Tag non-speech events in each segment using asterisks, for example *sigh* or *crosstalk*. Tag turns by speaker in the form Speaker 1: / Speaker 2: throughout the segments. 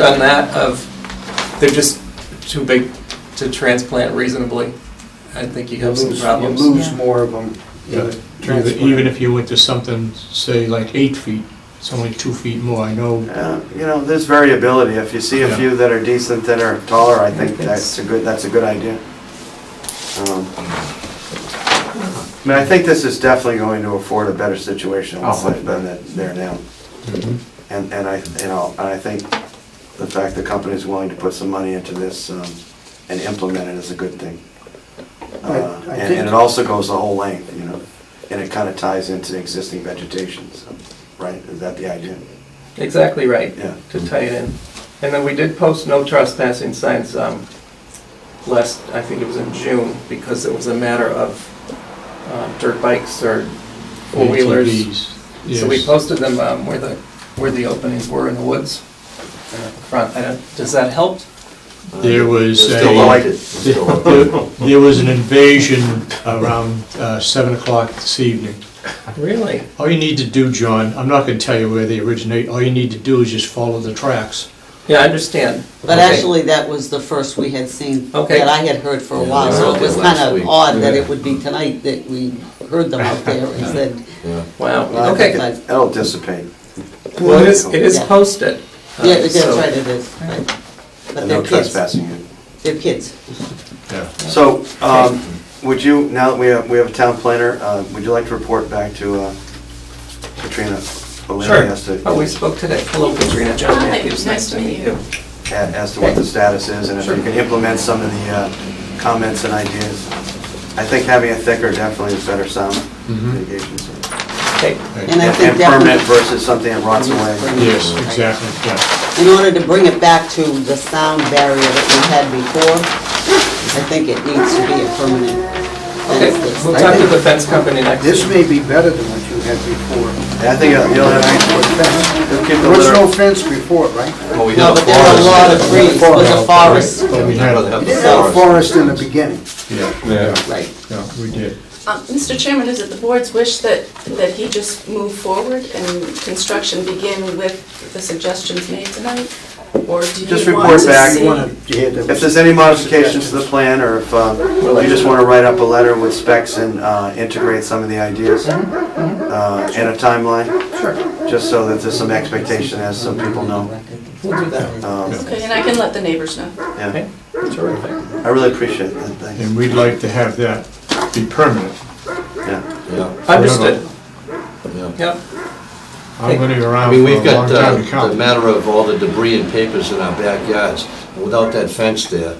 Speaker 1: done that of, they're just too big to transplant reasonably. I think you
Speaker 2: You
Speaker 1: have some
Speaker 2: lose, you
Speaker 1: problems.
Speaker 2: lose
Speaker 3: Yeah.
Speaker 2: more of them.
Speaker 4: Yeah. Even even if you went to something, say like eight feet, it's only two feet more, I know.
Speaker 2: Uh, You know, there's variability. If you see a
Speaker 4: Yeah.
Speaker 2: few that are decent, that are taller, I think that's a good, that's a good idea. Um, I mean, I think this is definitely going to afford a better situation
Speaker 4: Oh, I-
Speaker 2: than that there now.
Speaker 5: Mm-hmm.
Speaker 2: And, and I, you know, and I think the fact the company's willing to put some money into this um, and implement it is a good thing.
Speaker 5: I- I
Speaker 2: Uh, And
Speaker 5: think-
Speaker 2: and it also goes the whole length, you know, and it kind of ties into existing vegetation, so, right? Is that the idea?
Speaker 1: Exactly right,
Speaker 2: Yeah.
Speaker 1: to tie it in. And then we did post no trespassing signs um, last, I think it was in June, because it was a matter of uh, dirt bikes or
Speaker 2: E
Speaker 1: four-wheelers.
Speaker 4: ATVs,
Speaker 1: So we
Speaker 4: yes.
Speaker 1: posted them um, where the, where the openings were in the woods, uh, front. I don't- Does that help?
Speaker 4: There was
Speaker 2: They're
Speaker 4: a.
Speaker 2: Still like it.
Speaker 4: *laughs* There there was an invasion around uh, 7 o'clock this evening.
Speaker 1: Really?
Speaker 4: All you need to do, John, I'm not going to tell you where they originate, all you need to do is just follow the tracks.
Speaker 1: Yeah, I understand.
Speaker 3: But
Speaker 1: Okay.
Speaker 3: actually, that was the first we had seen,
Speaker 1: Okay.
Speaker 3: that I had heard for a
Speaker 6: Yeah,
Speaker 3: while,
Speaker 6: they
Speaker 3: so
Speaker 6: were
Speaker 3: it
Speaker 6: there
Speaker 3: was
Speaker 6: last
Speaker 3: kind of
Speaker 6: week.
Speaker 3: odd that
Speaker 4: Yeah.
Speaker 3: it would be tonight that we heard them out there and said,
Speaker 6: Yeah.
Speaker 1: Wow,
Speaker 2: Well, I think
Speaker 1: okay.
Speaker 3: Okay.
Speaker 2: it- It'll dissipate.
Speaker 1: Well, it is, it is
Speaker 3: Yeah.
Speaker 1: posted. uh,
Speaker 3: yeah, that's
Speaker 1: so-
Speaker 3: right, it is. right. But
Speaker 2: And no
Speaker 3: they're kids,
Speaker 2: trespassing.
Speaker 3: they're kids.
Speaker 4: Yeah.
Speaker 2: So, um, would you, now that we have, we have a town planner, uh, would you like to report back to uh, Katrina?
Speaker 1: Sure.
Speaker 2: O'Leary As to,
Speaker 1: Oh, we spoke today. Hello, Katrina. John
Speaker 7: Hi,
Speaker 1: Matthews. Nice to meet you.
Speaker 2: a- as to what the status is, and if
Speaker 1: Sure.
Speaker 2: you can implement some of the uh, comments and ideas. I think having a thicker definitely is better sound
Speaker 1: Mm-hmm.
Speaker 4: Mhm.
Speaker 2: mitigation. so-
Speaker 1: Okay.
Speaker 3: And I
Speaker 2: And
Speaker 3: think
Speaker 2: permanent
Speaker 3: definitely,
Speaker 2: versus something that rots away.
Speaker 4: Yes, exactly, yeah.
Speaker 3: in order to bring it back to the sound barrier that we had before, I think it needs to be a permanent
Speaker 1: Okay,
Speaker 3: fence.
Speaker 1: we'll
Speaker 3: that's-
Speaker 1: talk to the fence company next.
Speaker 5: This may be better than what you had before.
Speaker 2: And I think uh, you'll have,
Speaker 5: Fence.
Speaker 2: you'll keep the
Speaker 5: There was no
Speaker 2: litter.
Speaker 5: fence before, right?
Speaker 6: Well, we
Speaker 3: No,
Speaker 6: have a
Speaker 3: but there are a lot of
Speaker 6: forest.
Speaker 3: trees, it was a forest,
Speaker 4: But we
Speaker 6: I'd rather
Speaker 4: had,
Speaker 6: have the
Speaker 5: No
Speaker 6: forest.
Speaker 5: forest in the beginning.
Speaker 4: yeah,
Speaker 6: Yeah.
Speaker 3: right.
Speaker 4: yeah, we did.
Speaker 7: Um, Mr. Chairman, is it the board's wish that, that he just move forward and construction begin with the suggestions made tonight? Or do
Speaker 2: Just
Speaker 7: you
Speaker 2: report
Speaker 7: want to
Speaker 2: back.
Speaker 7: see?
Speaker 2: You wanna- If there's any modifications to the plan, or if uh, you just want to write up a letter with specs and uh, integrate some of the ideas uh, and a timeline, just so that there's some expectation, as some people know.
Speaker 1: We'll do that.
Speaker 2: Um,
Speaker 7: Okay, and I can let the neighbors know.
Speaker 2: yeah.
Speaker 1: Okay, terrific.
Speaker 2: I really appreciate that, thanks.
Speaker 4: And we'd like to have that be permanent.
Speaker 2: Yeah.
Speaker 6: Yeah,
Speaker 1: Understood.
Speaker 6: yeah.
Speaker 1: Yep.
Speaker 4: I'm going to be
Speaker 6: I
Speaker 4: around
Speaker 6: mean,
Speaker 4: for a
Speaker 6: we've
Speaker 4: long
Speaker 6: got uh,
Speaker 4: time to come.
Speaker 6: the matter of all the debris and papers in our backyards. Without that fence there,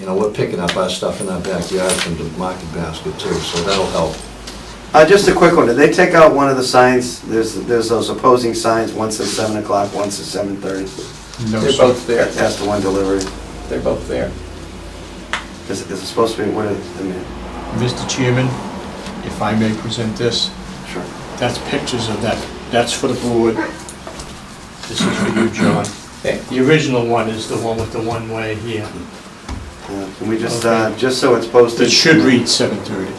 Speaker 6: you know, we're picking up our stuff in our backyard from the market basket too, so that'll help.
Speaker 2: Uh, Just a quick one, did they take out one of the signs, there's, there's those opposing signs, one says 7 o'clock, one says 7:30,
Speaker 4: No,
Speaker 1: They're
Speaker 4: sir.
Speaker 1: both there.
Speaker 2: that's the one delivery.
Speaker 1: They're both there.
Speaker 2: Is is it supposed to be, what is, I mean,
Speaker 4: Mr. Chairman, if I may present this,
Speaker 2: sure.
Speaker 4: that's pictures of that, that's for the board. This is for you, John.
Speaker 1: Okay.
Speaker 4: The original one is the one with the one-way here.
Speaker 2: Yeah, Can we just, uh,
Speaker 4: Okay.
Speaker 2: just so it's posted?
Speaker 4: It should read 7:30.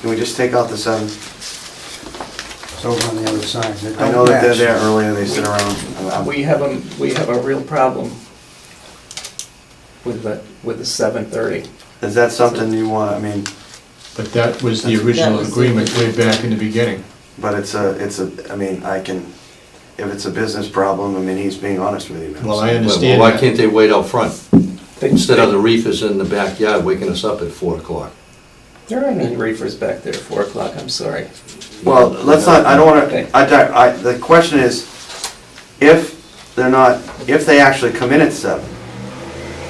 Speaker 2: Can we just take out the 7?
Speaker 5: It's over on the other side. They
Speaker 2: I
Speaker 5: don't
Speaker 2: know that they're
Speaker 5: match.
Speaker 2: there earlier, they sit around. Uh,
Speaker 1: Oh, We have a, we have a real problem with the, with the seven thirty.
Speaker 2: Is that something you want, I mean,
Speaker 4: But that was the original
Speaker 3: was the
Speaker 4: agreement way back in the beginning.
Speaker 2: but it's a, it's a, I mean, I can, if it's a business problem, I mean, he's being honest with you. man.
Speaker 4: Well, I
Speaker 6: Well,
Speaker 4: understand
Speaker 6: Why
Speaker 4: that.
Speaker 6: can't they wait out front? Instead of the reefers in the backyard waking us up at four o'clock.
Speaker 1: There aren't any reefers back there at four o'clock, I'm sorry.
Speaker 2: Well, let's not, I don't
Speaker 1: Okay.
Speaker 2: wanna, I, di- I, the question is, if they're not, if they actually come in at seven,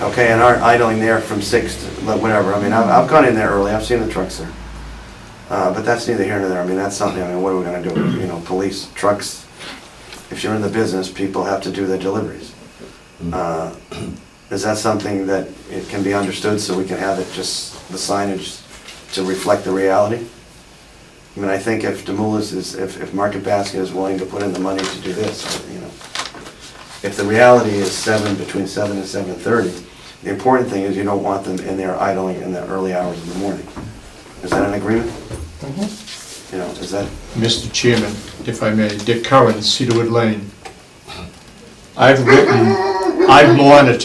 Speaker 2: okay, and aren't idling there from six to whatever, I mean, I've, I've gone in there early, I've seen the trucks there. Uh, but that's neither here nor there, I mean, that's something, I mean, what are we gonna do, you know, police, trucks? If you're in the business, people have to do their deliveries. Uh, *clears throat* Is that something that it can be understood, so we can have it just, the signage to reflect the reality? I mean, I think if Demoulas is, if, if Market Basket is willing to put in the money to do this, you know, if the reality is seven, between seven and seven thirty, the important thing is you don't want them in there idling in the early hours of the morning. Is that an agreement? You know, is that,
Speaker 4: Mr. Chairman, if I may, Dick Curran, Cedarwood Lane. I've written I've monitored